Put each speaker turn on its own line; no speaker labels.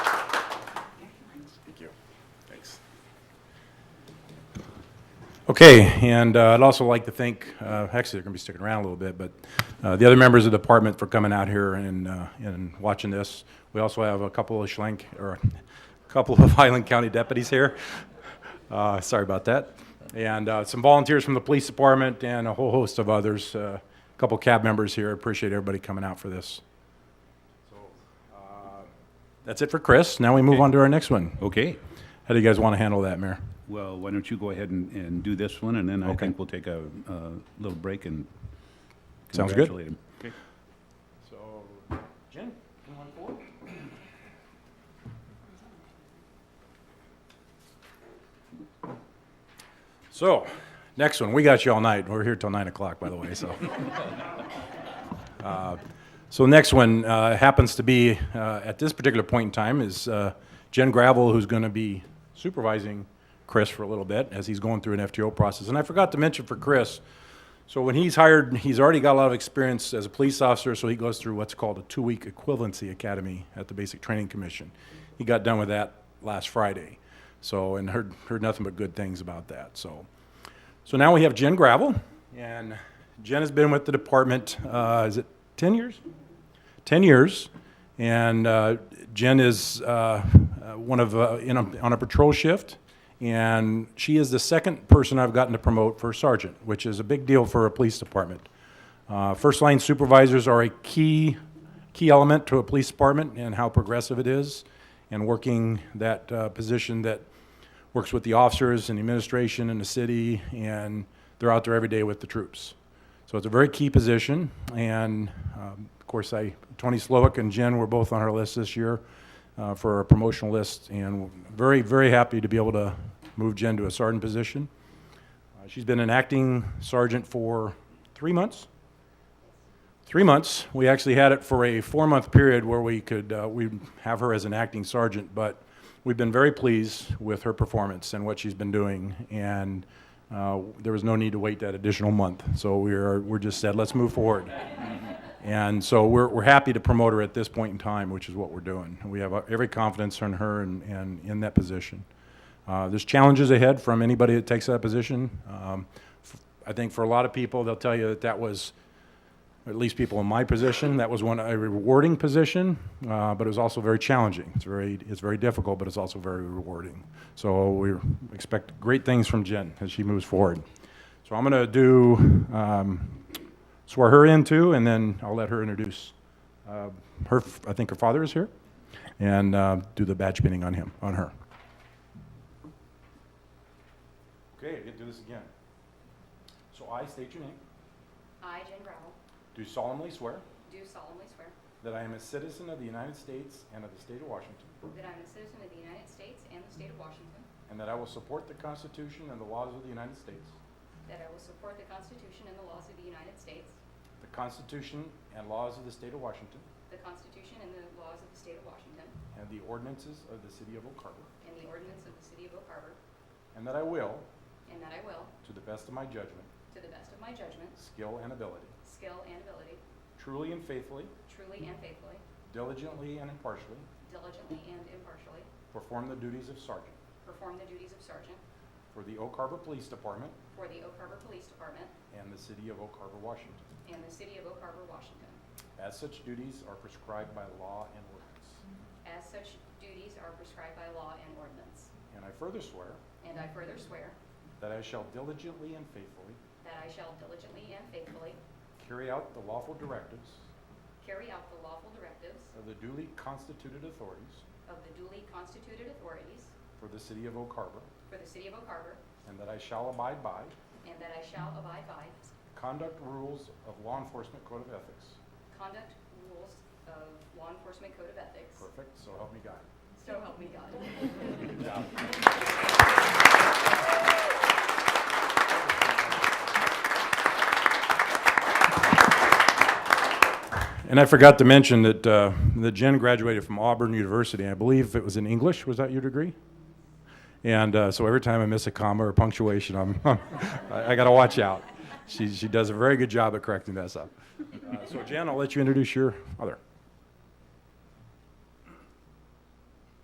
Okay, and uh, I'd also like to thank, uh, actually, they're going to be sticking around a little bit, but uh, the other members of the department for coming out here and, uh, and watching this. We also have a couple of Schlank, or a couple of Highland County deputies here. Uh, Sorry about that. And uh, some volunteers from the police department and a whole host of others, Uh, a couple cab members here. Appreciate everybody coming out for this. So, uh, That's it for Chris. Now we move on to our next one.
Okay,
How do you guys want to handle that, Mayor?
well, why don't you go ahead and, and do this one, and then I
Okay.
think we'll take a, uh little break and
Sounds good.
congratulate him.
So, Jen, come on forward. So, next one, we got you all night. We're here till nine o'clock, by the way, so. Uh, So next one uh, happens to be, uh, at this particular point in time, is uh, Jen Gravel, who's going to be supervising Chris for a little bit as he's going through an FTO process. And I forgot to mention for Chris, so when he's hired, he's already got a lot of experience as a police officer, so he goes through what's called a two-week equivalency academy at the Basic Training Commission. He got done with that last Friday, so, and heard, heard nothing but good things about that, so. So now we have Jen Gravel, and Jen has been with the department, uh, is it ten years? 10 years, and uh, Jen is uh, uh, one of, uh, in a, on a patrol shift, and she is the second person I've gotten to promote for sergeant, which is a big deal for a police department. Uh, First line supervisors are a key, key element to a police department and how progressive it is, and working that uh, position that works with the officers and the administration and the city, and they're out there every day with the troops. So it's a very key position, and um, of course, I, Tony Slowick and Jen were both on our list this year uh, for our promotional list, and very, very happy to be able to move Jen to a sergeant position. Uh, She's been an acting sergeant for three months. Three months. We actually had it for a four-month period where we could, uh, we'd have her as an acting sergeant, but we've been very pleased with her performance and what she's been doing, and uh, there was no need to wait that additional month. So we're, we're just said, let's move forward. And so we're, we're happy to promote her at this point in time, which is what we're doing. We have uh, every confidence in her and, and in that position. Uh, There's challenges ahead from anybody that takes that position. Um, f- I think for a lot of people, they'll tell you that that was, at least people in my position, that was one, a rewarding position, uh, but it was also very challenging. It's very, it's very difficult, but it's also very rewarding. So we expect great things from Jen as she moves forward. So I'm going to do, um, swear her in too, and then I'll let her introduce uh, her, f- I think her father is here, and uh, do the badge pinning on him, on her. Okay, I can do this again. So I state your name,
I, Jen Gravel,
do solemnly swear
do solemnly swear
that I am a citizen of the United States and of the state of Washington,
that I am a citizen of the United States and the state of Washington,
and that I will support the Constitution and the laws of the United States,
that I will support the Constitution and the laws of the United States,
the Constitution and laws of the state of Washington,
the Constitution and the laws of the state of Washington,
and the ordinances of the city of Oak Harbor,
and the ordinance of the city of Oak Harbor,
and that I will,
and that I will,
to the best of my judgment,
to the best of my judgment,
skill, and ability,
skill, and ability,
Truly and faithfully,
truly and faithfully,
diligently and impartially,
diligently and impartially,
perform the duties of sergeant
perform the duties of sergeant
for the Oak Harbor Police Department
for the Oak Harbor Police Department
and the City of Oak Harbor, Washington,
and the city of Oak Harbor, Washington.
as such duties are prescribed by law and ordinance.
As such duties are prescribed by law and ordinance.
And I further swear
And I further swear
that I shall diligently and faithfully
That I shall diligently and faithfully
carry out the lawful directives
carry out the lawful directives
of the duly constituted authorities
of the duly constituted authorities
for the City of Oak Harbor,
for the City of Oak Harbor,
and that I shall abide by
and that I shall abide by
conduct rules of law enforcement code of ethics.
conduct rules of law enforcement code of ethics.
Perfect, so help me God.
So help me God.
And I forgot to mention that, uh, that Jen graduated from Auburn University. I believe it was in English. Was that your degree? And uh, so every time I miss a comma or punctuation, I'm, I, I got to watch out. She, she does a very good job at correcting that stuff. Uh, so Jen, I'll let you introduce your other.